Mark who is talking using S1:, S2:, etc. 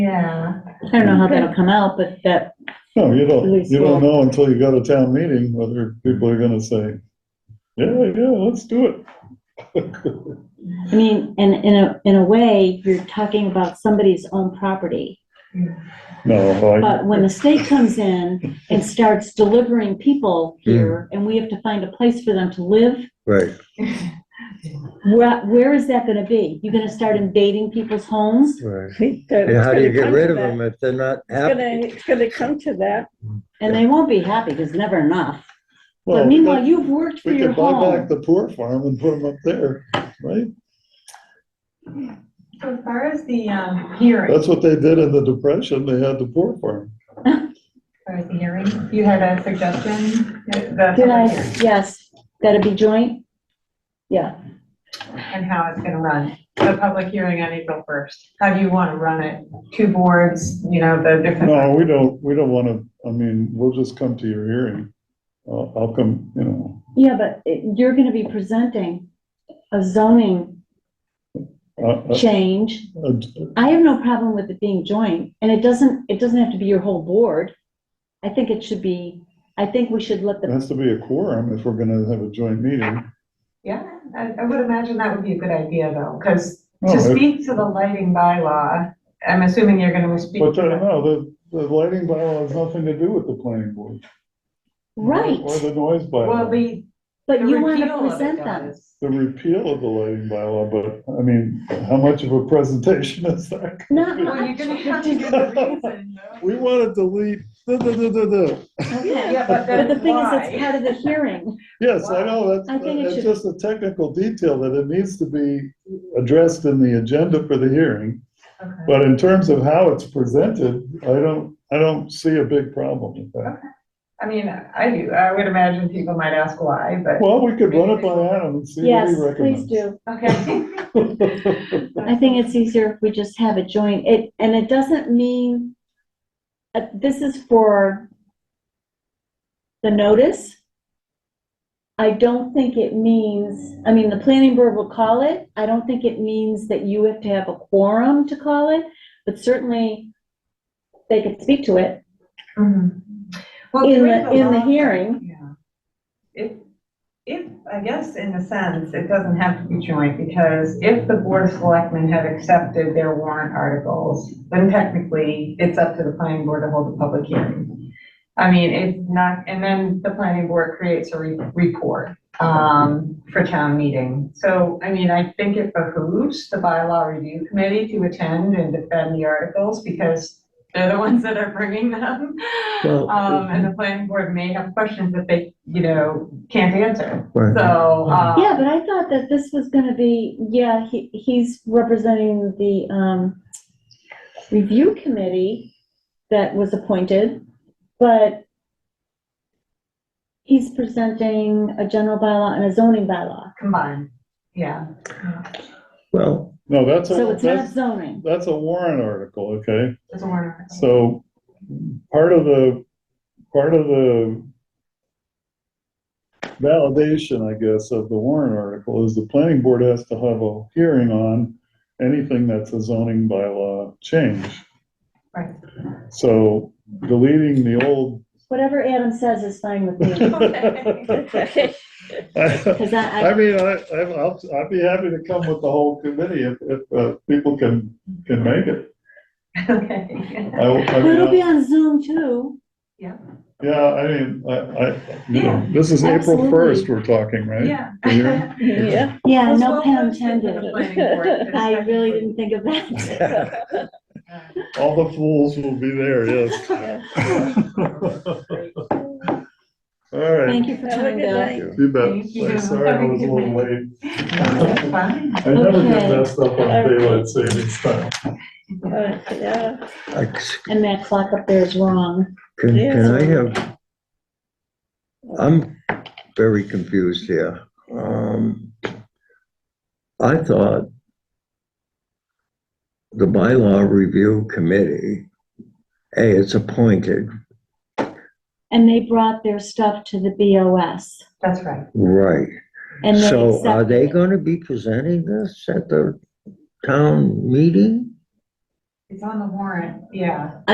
S1: Yeah,
S2: I don't know how that'll come out, but that,
S3: No, you don't,
S2: Least
S3: you don't
S2: one.
S3: know until you go to town meeting whether people are gonna say, yeah, yeah, let's do it.
S2: I mean, and in a, in a way, you're talking about somebody's own property.
S3: No, I,
S2: But when the state comes in and starts delivering people
S3: Hmm.
S2: here, and we have to find a place for them to live,
S4: Right,
S2: where, where is that gonna be? You're gonna start invading people's homes?
S4: right.
S5: And
S4: And how do you get rid of them if they're not
S5: It's
S4: happy?
S5: gonna, it's gonna come to that.
S2: And they won't be happy, there's never enough.
S3: well,
S2: But
S3: we
S2: meanwhile,
S3: could-
S2: you've worked for
S3: we
S2: your
S3: could buy back
S2: home.
S3: the poor farm and put them up there, right?
S1: so as far as the, um, hearing, as
S3: That's what they did in the depression, they had the poor farm.
S1: far as the hearing, you had a suggestion? the
S2: Did I,
S1: public hearing,
S2: yes, that'd be joint? Yeah,
S1: And how it's gonna run, the public hearing on April first, how do you wanna run it? Two boards, you know, the different,
S3: No, we don't, we don't wanna, I mean, we'll just come to your hearing. I'll, I'll come, you know,
S2: yeah, but it- you're gonna be presenting a zoning
S3: I- I-
S2: change.
S3: I-
S2: I have no problem with it being joint, and it doesn't, it doesn't have to be your whole board. I think it should be, I think we should let
S3: it
S2: the,
S3: has to be a quorum if we're gonna have a joint meeting.
S1: yeah, I, I would imagine that would be a good idea though, because
S3: No,
S1: to
S3: it-
S1: speak to the lighting bylaw, I'm assuming you're gonna speak.
S3: But
S1: to
S3: uh,
S1: the-
S3: no, the, the lighting bylaw has nothing to do with the planning board. Or
S2: right,
S3: the noise
S1: Well,
S3: bylaw.
S1: the.
S2: but
S1: the
S2: you want to
S1: repeal of it
S2: present them.
S1: does.
S3: The repeal of the lighting bylaw, but I mean, how much of a presentation is that?
S2: Not
S1: Well, you're
S2: much.
S1: gonna have to give a reason. though.
S3: We want to delete, duh, duh, duh, duh, duh, duh.
S2: Okay.
S1: Yeah, but
S2: But
S1: then
S2: the thing is,
S1: why?
S2: it's part of the hearing.
S3: yes, I know, that's,
S2: I think it
S3: that's
S2: should-
S3: just a technical detail that it needs to be addressed in the agenda for the hearing.
S1: Okay.
S3: But in terms of how it's presented, I don't, I don't see a big problem with that.
S1: I mean, I do, I would imagine people might ask why, but,
S3: Well, we could run it by Adam and see what
S2: Yes,
S3: he recommends.
S2: please do.
S1: okay.
S2: I think it's easier if we just have it joint. It, and it doesn't mean, uh, this is for the notice. I don't think it means, I mean, the planning board will call it. I don't think it means that you have to have a quorum to call it, but certainly they could speak to it
S1: Mhm. Well,
S2: in
S1: during
S2: the, in the
S1: law-
S2: hearing.
S1: Yeah. If, if, I guess in a sense, it doesn't have to be joint, because if the board of selectmen had accepted their warrant articles, then technically, it's up to the planning board to hold a public hearing. I mean, it's not, and then the planning board creates a re- report, um, for town meeting. So, I mean, I think it behooves the bylaw review committee to attend and defend the articles, because they're the ones that are bringing them.
S4: Well-
S1: Um, and the planning board may have questions that they, you know, can't answer,
S4: Right.
S1: so, um.
S2: Yeah, but I thought that this was gonna be, yeah, he, he's representing the, um, review committee that was appointed, but he's presenting a general bylaw and a zoning bylaw,
S1: Combined, yeah.
S4: Well,
S3: No, that's,
S2: so
S3: a
S2: it's not
S3: that's,
S2: zoning.
S3: that's a warrant article, okay?
S1: It's a warrant.
S3: So part of the, part of the validation, I guess, of the warrant article is the planning board has to have a hearing on anything that's a zoning bylaw change.
S1: Right.
S3: So deleting the old.
S2: Whatever Adam says is fine with me,
S3: I
S2: because I,
S3: I
S2: I,
S3: mean, I, I'm- I'll, I'd be happy to come with the whole committee if, if uh, people can, can make it.
S1: Okay.
S3: I- I
S2: but
S3: mean,
S2: it'll
S3: I-
S2: be on Zoom too.
S3: Yeah, I mean, I, I, you know, this is
S2: Yeah,
S3: April first
S2: absolutely.
S3: we're talking, right?
S1: Yeah.
S3: The hearing?
S5: Yeah.
S2: Yeah,
S1: It's
S2: no
S1: well
S2: pun
S1: posted for the
S2: intended.
S1: planning board, 'cause
S2: I
S1: technically-
S2: really didn't think of that.
S3: All the fools will be there, yes. All right,
S2: Thank you for
S5: Have a
S2: coming,
S5: good
S2: Bill.
S5: night.
S3: you bet.
S1: Thank you.
S3: I'm Sorry I was a little late.
S1: Fine.
S3: I never get
S2: Okay.
S3: messed up on daylight savings time.
S5: Uh, yeah.
S4: I c-
S2: And that clock up there is wrong.
S4: can,
S5: Yeah.
S4: can I have? I'm very confused here. Um, I thought the bylaw review committee, A, it's appointed,
S2: And they brought their stuff to the BOS
S1: That's right.
S4: right?
S2: and they
S4: So are
S2: accepted
S4: they
S2: it.
S4: gonna be presenting this at the town meeting?
S1: It's on the warrant, yeah.